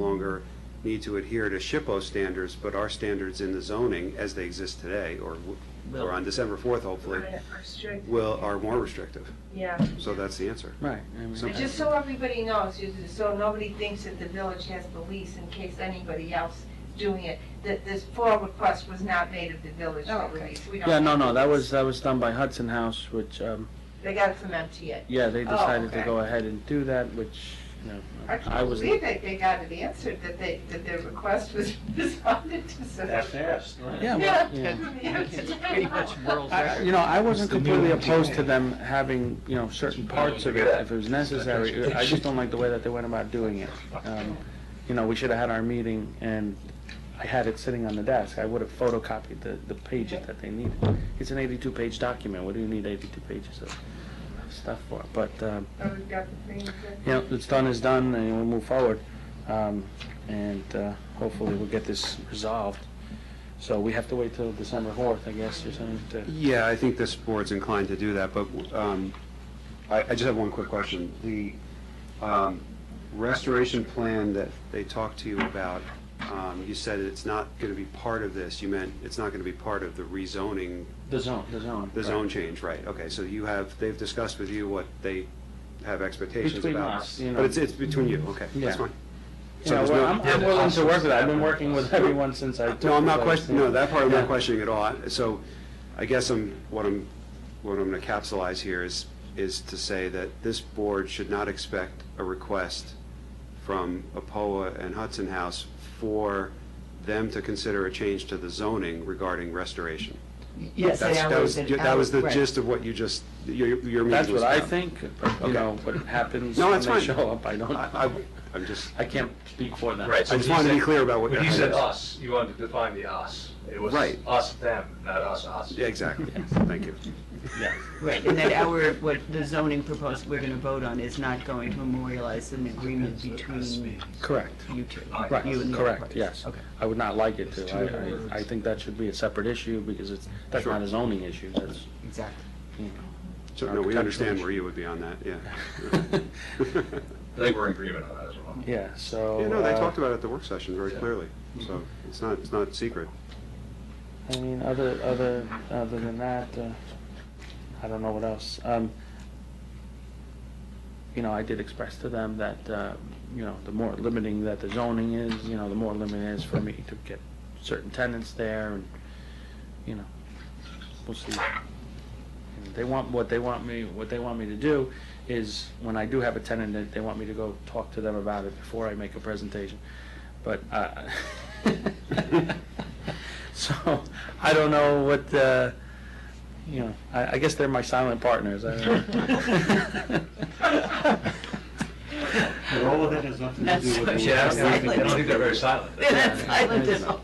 longer need to adhere to SHPO standards, but our standards in the zoning as they exist today, or, w- or on December 4th hopefully, Right, are strict, will, are more restrictive. yeah. So that's the answer. Right. I mean, So- But Just so everybody knows, you- so nobody thinks that the village has the lease in case anybody else doing it, that this FOIL request was not made of the village Oh, for okay. release. We don't Yeah, no, have no, the that lease. was, that was done by Hudson House, which, um, They got it from MTA. yeah, they Oh, decided to okay. go ahead and do that, which, you know, I I can't was. believe that they got it answered, that they, that their request was responded to. so- That fast, right? Yeah, Yeah. well, yeah. It's Pretty much world I- record. You know, I wasn't It's the new completely MTA. opposed to them having, you know, certain parts of it if it was necessary. I just don't like the way that they went about doing it. Um, You know, we should have had our meeting and I had it sitting on the desk. I would have photocopied the, the pages that they needed. It's an eighty-two page document. What do you need eighty-two pages of stuff for? But, um, Oh, we've got the thing. you know, it's done is done, and we'll move forward. Um, And uh, hopefully, we'll get this resolved. So we have to wait till December 4th, I guess, or something, to... Yeah, I think this board's inclined to do that, but um, I I just have one quick question. The um, restoration plan that they talked to you about, um, you said it's not going to be part of this, you meant it's not going to be part of the rezoning The zone, the zone. The zone change, right, okay, so you have, they've discussed with you what they have expectations Between about. us, you know. But it's, it's between you, okay, that's Yeah. fine. You know, So there's well, no- I'm I'm willing to work with that. I've been working with everyone since I... No, I'm not took questioning, the- no, that part I'm not Yeah. questioning at all, I- so I guess I'm, what I'm, what I'm gonna capsulize here is, is to say that this board should not expect a request from APOA and Hudson House for them to consider a change to the zoning regarding restoration. Yes, That's- that that was an That was the hour, right. gist of what you just, your, your meeting was That's what I about. think, but, you Okay. know, what happens No, when that's they fine. show up, I don't... I, I- I'm just, I can't speak for them. Right, I so just he wanted to be said- clear about what. When you I- said us, you wanted to define the us. It was Right. us, them, not us, us. Yeah, exactly. Thank you. Yeah. Right, and that our, what the zoning proposal we're gonna vote on is not going to memorialize an agreement between Correct. you two. Right, you and the other correct, parties. yes. Okay. I would not like it to. I- I, I think that should be a separate issue, because it's, that's not a zoning issue, that's, Exactly. you So, no, we understand where you would be on that, yeah. know. I think we're in agreement on that as well. Yeah, so. Yeah, no, they uh, talked about it at the work session very clearly, so it's not, it's not secret. I mean, other, other, other than that, uh, I don't know what else. Um, You know, I did express to them that, uh, you know, the more limiting that the zoning is, you know, the more limiting it is for me to get certain tenants there and, you know, we'll see. And They want, what they want me, what they want me to do is, when I do have a tenant, that they want me to go talk to them about it before I make a presentation. But, uh, so, I don't know what, uh, you know, I, I guess they're my silent partners. I don't know. But all of that has nothing to That's do what with. she Yeah, I was don't think- I don't think they're very silent. Yeah, that's island is all.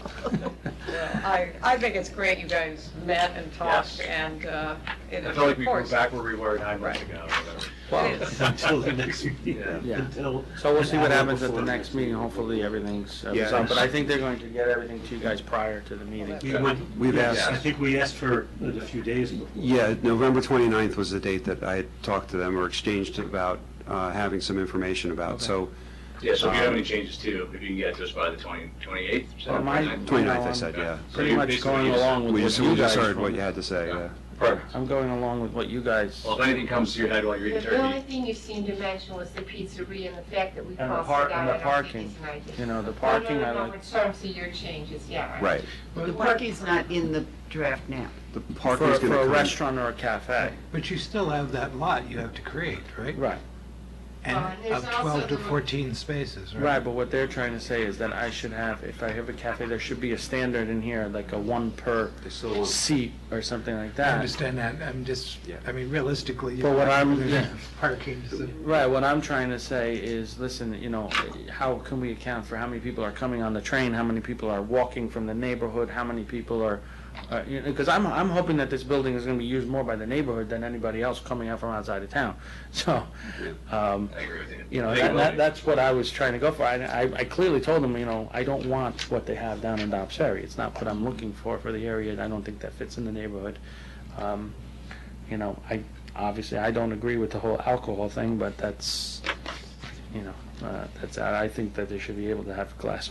I, I think it's great you guys met and talked Yes. and, uh, it- I feel like of we go course. back where we were nine months ago or whatever. Well, Until the next meeting. Yeah. Yeah. Until- So we'll see what an hour happens at the before next meeting, hopefully everything's uh, Yeah. resolved, but I think they're going to get everything to you guys prior to the meeting. We would- We've asked- I think we asked for it a few days before. Yeah, November 29th was the date that I had talked to them or exchanged about uh, having some information about, so, Yeah, so if you have any changes too, if you can get to us by the twenty, twenty-eighth, Well, seven, my- 29th, twenty-ninth. I said, yeah. Pretty much going along with We what just, you we just guys. heard want. what you had to say, yeah. Perfect. I'm going along with what you guys, Well, if anything comes to your head while you're The eating the only turkey, thing you seemed to mention was the pizzeria and the fact that we And the crossed par- it out. and the I don't think parking. it's an idea. you know, the No, no, parking, I no, no, like, in terms of your changes, yeah. I- Right. The parking's not in the draft now. The for, parking's for gonna a come- restaurant or a cafe. But you still have that lot you have to create, Right, right? Well, and And Uh, there's of also 12 to the- 14 spaces, right? right, but what they're trying to say is that I should have, if I have a cafe, there should be a standard in here, like a one per They still want- seat or something like I that. understand that, I'm just, Yeah. I mean, realistically. But what I'm- yeah. Parking. is a- Right, what I'm trying to say is, listen, you know, how can we account for how many people are coming on the train, how many people are walking from the neighborhood, how many people are, uh, you know, because I'm, I'm hoping that this building is gonna be used more by the neighborhood than anybody else coming out from outside of town, so, um, I agree with you. you know, I think that, it will that, be. that's what I was trying to go for, I, I- I clearly told them, you know, I don't want what they have down in Dobbs Ferry, it's not what I'm looking for for the area, and I don't think that fits in the neighborhood. Um, you know, I, obviously, I don't agree with the whole alcohol thing, but that's, you know, uh, that's out. I think that they should be able to have class